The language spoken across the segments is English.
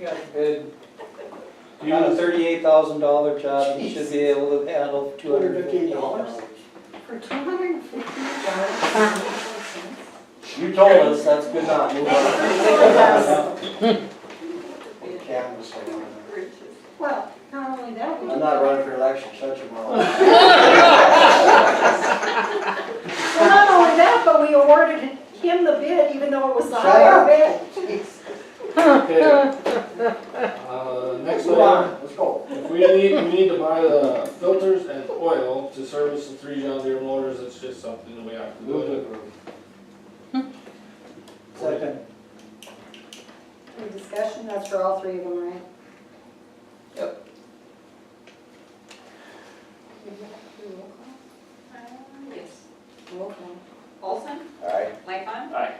got Ed, do On a you, thirty-eight thousand dollar job, you should be able to handle two hundred and fifteen dollars. $215. for two hundred and fifty dollars. You told us, that's good enough. Move on. Canvas thing on Well, not only that, there. we- I'm not running for election, shut your mouth. well, not only that, but we awarded him the bid even though it was the Shut higher up. bid. okay. Uh, next Move item, on, let's go. if we need, we need to buy the filters and oil to service the three John Deere motors, it's just something that we have to Move to do. approve. Second, Any discussion? That's for all three of them, right? Yep. Do we have to do roll call? Yes. Roll call. Olson, aye. Lightfon. Aye.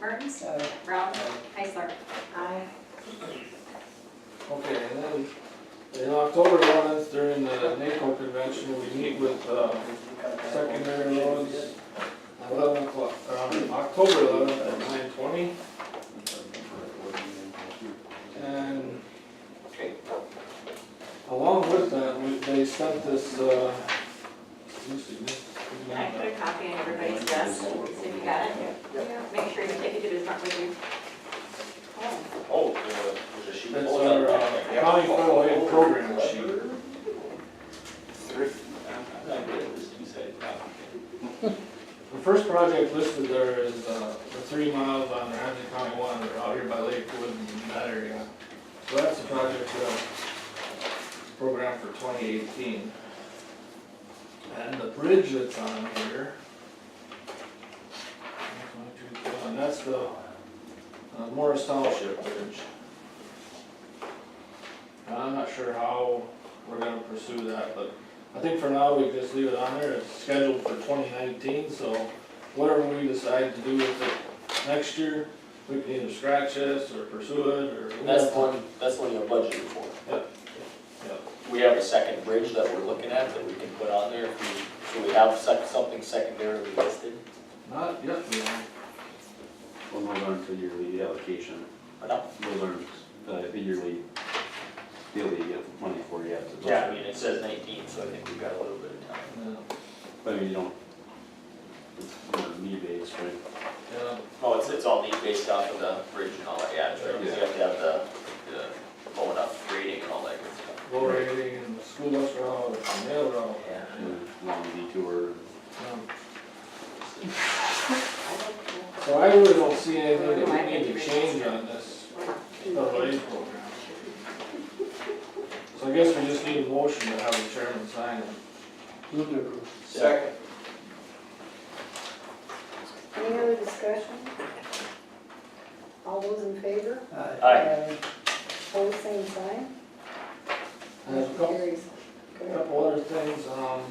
Mertens, Aye. Brown, Heisler. Aye. Okay, and then, in October, once during the NACO convention, we meet with, uh, secondary roads at eleven o'clock, um, October eleventh at nine twenty, and along with that, we, they sent this, uh, let me see, this- I put a copy on everybody's desk, so if you got it, Yeah. make sure you take it to his front with you. Oh, there's a sheet. That's our uh, county federal aid program sheet. The first project listed there is uh, the three miles on Ramsey County One, they're out here by Lakewood and that area. So that's the project, uh, program for twenty eighteen. And the bridge that's on here. And that's the uh, Morris Township Bridge. And I'm not sure how we're gonna pursue that, but I think for now, we just leave it on there, it's scheduled for twenty nineteen, so whatever we decide to do with it next year, we can either scratch this or pursue it, or. That's the one, that's the one you have budgeted for. Yep. Yep. We have a second bridge that we're looking at that we can put on there, if we, so we have sec- something secondarily listed, Not yet, we don't. Well, those aren't the yearly allocation, or not? those aren't uh, the yearly deal that you get money for yet. It's Yeah, I mean, it says nineteen, so I think we've got a little bit of time. No. But I mean, you don't, it's uh, need-based, right? Yeah. Oh, it's, it's all neat based off of the bridge and all that, yeah, that's right, 'cause you have to have the, the blown up grading and all that good stuff. Low rating and school bus route, and mail route. Yeah. Uh, Long detour. Um, I don't know. So I really don't see anything that we need to change on this, federal aid program. So I guess we just need a motion to have the chairman sign it. Move to approve. Second. Any other discussion? All those in favor? Aye. Aye. Hold the same sign. And there's a couple Carries. Go ahead. Couple other things, um,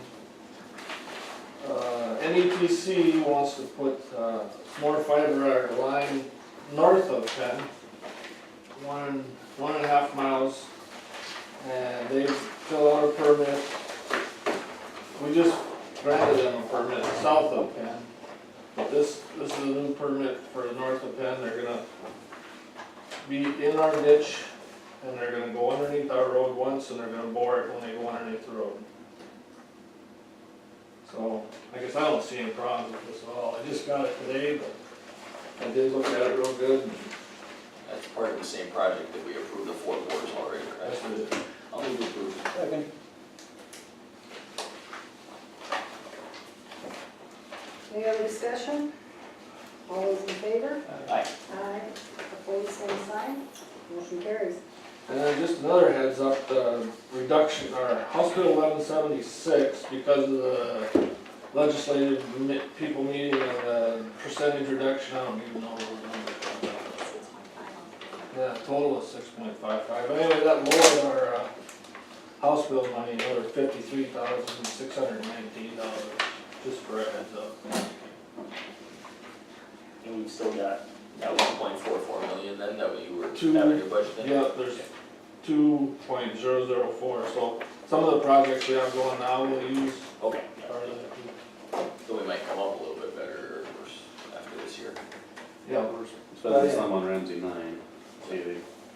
uh, NEPC wants to put, uh, more fiber our line north of Penn. One, one and a half miles, and they fill out a permit. We just granted them a permit south of Penn, but this, this is a new permit for north of Penn, they're gonna be in our ditch and they're gonna go underneath our road once, and they're gonna bore it when they go underneath the road. So, I guess I don't see any problems with this at all, I just got it today, but I did look at it real good, and That's part of the same project that we approved the four quarters already, that's right? what it. I'll leave it approved. Second, Any other discussion? All those in favor? Aye. Aye. Opposed, same sign. Motion carries. And then just another heads up, the reduction, or House Bill eleven seventy-six, because of the legislative mi- people meeting and the percentage reduction, I don't even know what number. Yeah, total is six point five five, but anyway, that lowered our, uh, house bill money, another fifty-three thousand, six hundred and nineteen dollars, just for a heads up. And we've still got that one point four four million then that we were Two. having your budget in. Yeah, there's two point zero zero four, so some of the projects we have going now will use Okay, part of that. so we might come up a little bit better or worse after this year. Yeah, especially some on Ramsey nine, maybe.